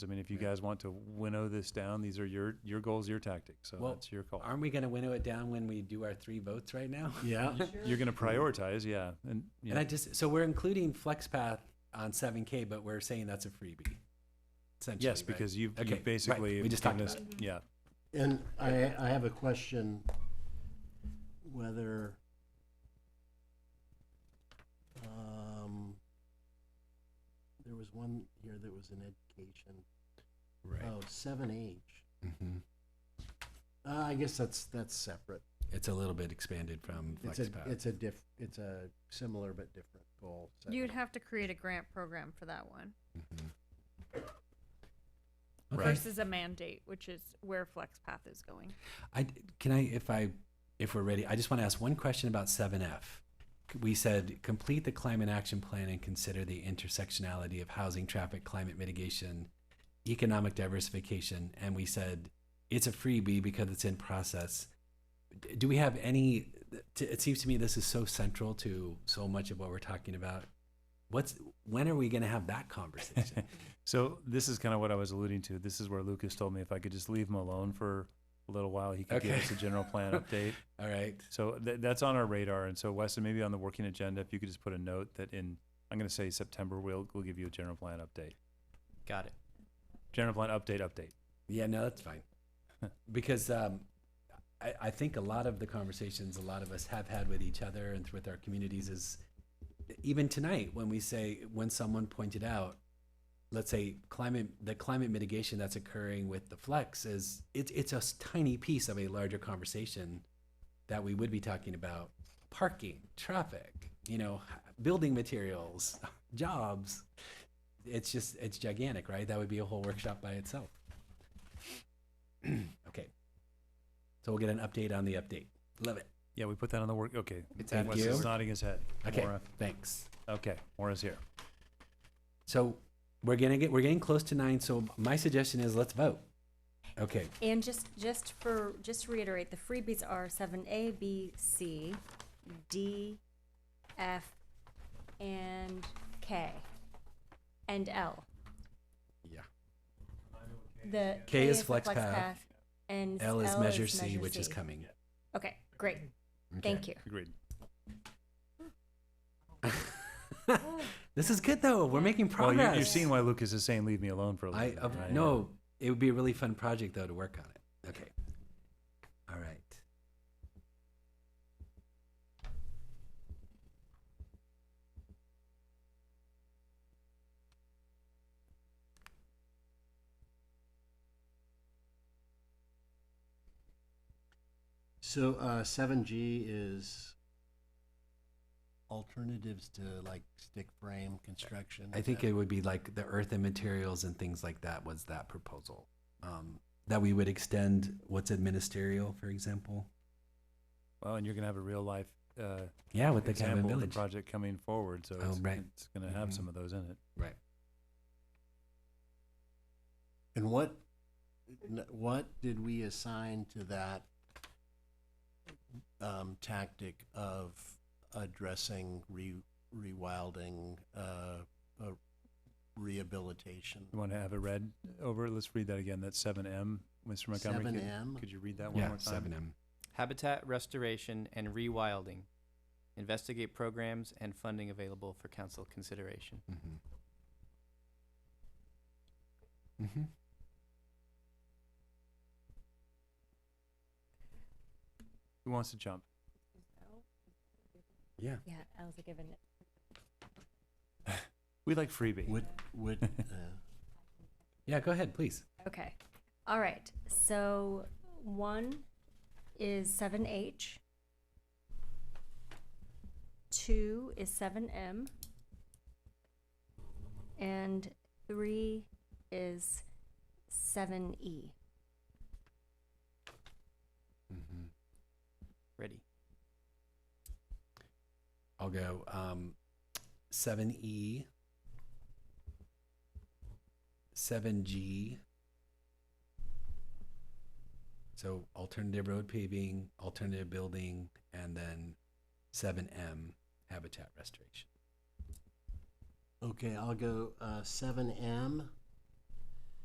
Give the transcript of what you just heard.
I mean, if you guys want to winnow this down, these are your, your goals, your tactics. So Well, that's your call. Aren't we going to winnow it down when we do our three votes right now? Yeah. You're going to prioritize, yeah. And, And yeah, I just, so we're including FlexPath on 7K, but we're saying that's a freebie. Essentially, yes, right? because you've, Okay, you've right. basically. We just talked given about us- Yeah. And I, I have a question whether um, there was one here that was in education. Right. Oh, seven H. Mm-hmm. Uh, I guess that's, that's separate. it's a little bit expanded from It's a, FlexPath. it's a diff, it's a similar but different goal. You'd 7H. have to create a grant program for that one Okay. versus a mandate, which is where FlexPath is going. I can I if I if we're ready, I just want to ask one question about 7F. We said complete the climate action plan and consider the intersectionality of housing, traffic, climate mitigation, economic diversification, and we said it's a freebie because it's in process. D- Do we have any? t- It seems to me this is so central to so much of what we're talking about. What's when are we going to have that conversation? So this is kind of what I was alluding to. This is where Lucas told me if I could just leave him alone for a little while, he could give Okay. us a general plan update. All right. So th- that's on our radar. And so Weston, maybe on the working agenda, if you could just put a note that in, I'm going to say September, we'll, we'll give you a general plan update. Got it. General plan update, update. Yeah, no, that's fine. because um, I, I think a lot of the conversations a lot of us have had with each other and with our communities is even tonight when we say when someone pointed out, let's say climate the climate mitigation that's occurring with the flex is it's it's a s- tiny piece of a larger conversation that we would be talking about parking, traffic, you know, h- building materials, jobs. It's just it's gigantic, right? That would be a whole workshop by itself. okay. So we'll get an update on the update. Love it. Yeah, we put that on the work. Okay. It's Thank Wes is you. nodding his head. Okay. Maura. Thanks. Okay. Maura's here. So we're gonna get we're getting close to nine. So my suggestion is let's vote. Okay. And just, just for, just to reiterate, the freebies are seven A, B, C, D, F, and K, and L. Yeah. The. K is flex path, And. L is measure C, which is C. coming. Okay, great, thank you. Agreed. you. this is good though. We're making Well, progress. you, you've seen why Lucas is saying, leave me alone for a little I bit. uh, right? no. It would be a really fun project though to work on it. Okay. All right. So, uh, seven G is alternatives to like stick frame construction. I is think that- it would be like the earth and materials and things like that was that proposal. Um, that we would extend what's in ministerial, for example. Well, and you're going to have a real life uh, Yeah, with the cabin example of the village. project coming forward. So Oh, it's, right. it's going to have Mhm. some of those in it. Right. And what, n- what did we assign to that um, tactic of addressing re, rewilding, uh, uh, rehabilitation? You want to have it read over? Let's read that again. That's 7M. Mr. Montgomery, Seven could, M? could you read that one Yeah, more time? seven M. Habitat restoration and rewilding. Investigate programs and funding available for council consideration. Mm-hmm. Who wants to jump? Yeah. Yeah, L's a given. We like freebie. Would, would, uh, Yeah, go ahead, please. Okay. All right. So one is 7H, two is 7M, and three is E. 7E. Mm-hmm. Ready. I'll go um, E. 7E, 7G. So alternative road paving, alternative building, and then 7M, habitat restoration. okay, I'll go uh, seven M,